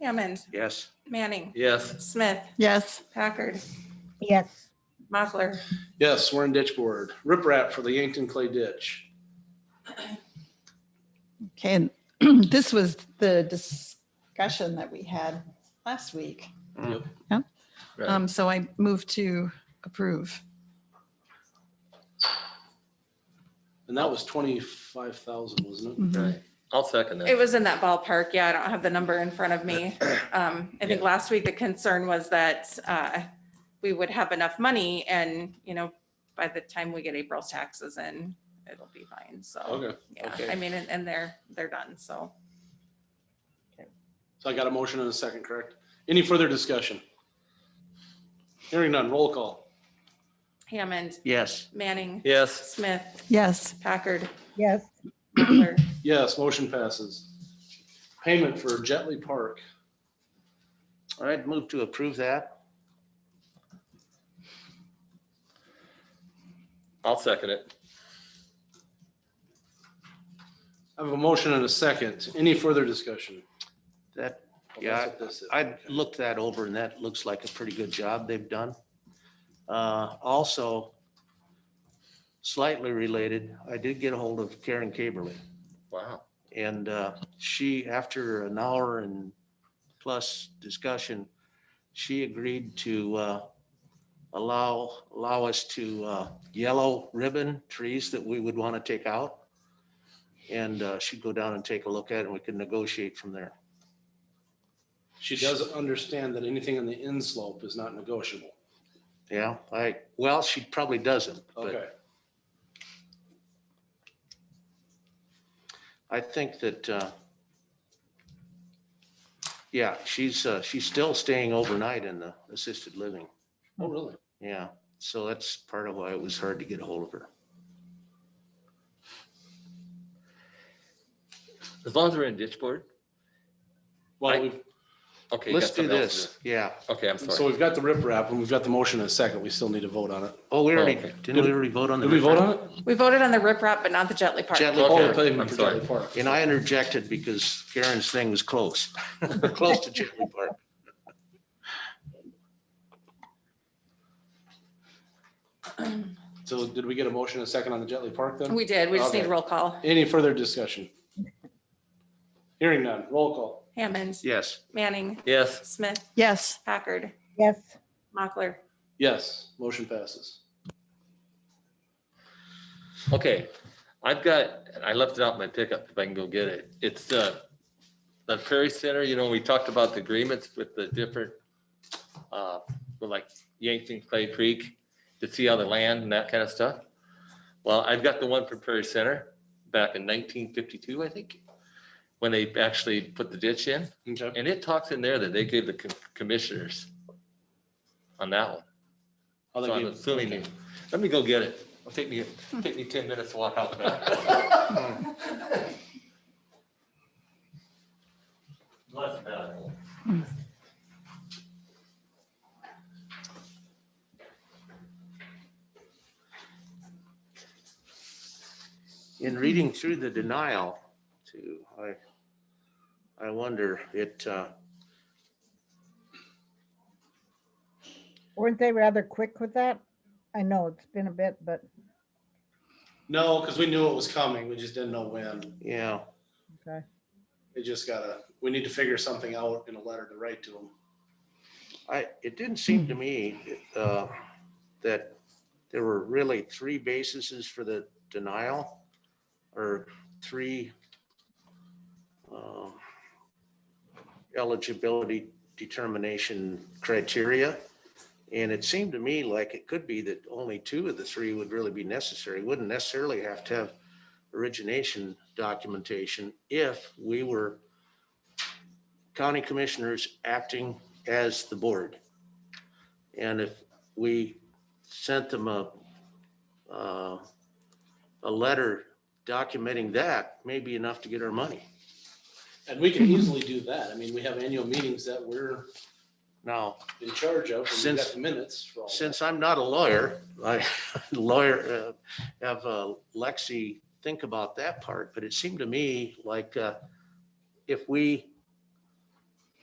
Hammond, Yes. Manning, Yes. Smith, Yes. Packard, yes, Mochler, Yes, we're in ditch board. Rip wrap for the Yankton Clay Ditch. Okay, and this was the discussion that we had last week. Yep. Yep. Right. Um, so I move to approve. And that was twenty-five thousand, wasn't it? Mhm. Right. I'll second that. It was in that ballpark. Yeah, I don't have the number in front of me. Um, I think last week the concern was that, uh, we would have enough money and, you know, by the time we get April's taxes in, it'll be fine. So, Okay, yeah, okay. I mean, and, and they're, they're done. So, so I got a motion and a second, correct? Any further discussion? Hearing none, roll call. Hammond, yes, Manning, Yes, Smith, Yes, Packard, yes, Mochler, Yes, motion passes. Payment for Jetley Park. all right, move to approve that, I'll second it. I have a motion and a second. Any further discussion? that, Oh, that's Yeah, what this is. I looked that over and that looks like a pretty good job they've done. Uh, also, slightly related, I did get a hold of Karen Caberly. Wow. And uh, she, after an hour and plus discussion, she agreed to uh, allow, allow us to uh, yellow ribbon trees that we would want to take out. And uh, she'd go down and take a look at it and we could negotiate from there. She does understand that anything on the inslope is not negotiable. Yeah, I, well, she probably doesn't, but Okay, I think that, uh, yeah, she's, uh, she's still staying overnight in the assisted living. oh, really? Yeah, so that's part of why it was hard to get a hold of her. As long as we're in ditch board. Well, I- we've, Okay. you got Let's do something else to this. Yeah. do. Okay, I'm so sorry. we've got the rip wrap and we've got the motion and a second. We still need to vote on it. Oh, we already, okay. didn't we already vote on the? Did we vote on it? we voted on the riprap, but not the Jetley Park. Jetley Oh, the Park. pavement I'm for sorry. Jetley Park. And I interjected because Karen's thing was close, close to Chipley Park. So did we get a motion and a second on the Jetley Park then? We did. We just need Okay. roll call. Any further discussion? Hearing none, roll call. Hammond, Yes, Manning, Yes, Smith, yes, Packard, yes, Mochler, Yes, motion passes. okay. I've got, I left it out in my pickup if I can go get it. It's uh, the Prairie Center, you know, we talked about the agreements with the different, uh, with like Yankton Clay Creek to see all the land and that kind of stuff. Well, I've got the one for Prairie Center back in 1952, I think, when they actually put the ditch in. Okay. And it talks in there that they gave the com- commissioners on that one. I'll So I'm give- assuming, they- let me go get it. It'll take me, take me ten minutes to walk out. in reading through the denial too, I, I wonder, it, uh, weren't they rather quick with that? I know it's been a bit, but No, because we knew it was coming. We just didn't know when. yeah, okay. It just gotta, we need to figure something out in a letter to write to them. I, it didn't seem to me uh, that there were really three bases for the denial or three um, eligibility determination criteria. And it seemed to me like it could be that only two of the three would really be necessary. Wouldn't necessarily have to have origination documentation if we were county commissioners acting as the board. And if we sent them a, uh, a letter documenting that, may be enough to get our money. And we can easily do that. I mean, we have annual meetings that we're Now, in charge of. and We've Since- got the minutes for all. that. since I'm not a lawyer, I lawyer, uh, have uh, Lexi think about that part, but it seemed to me like uh, if we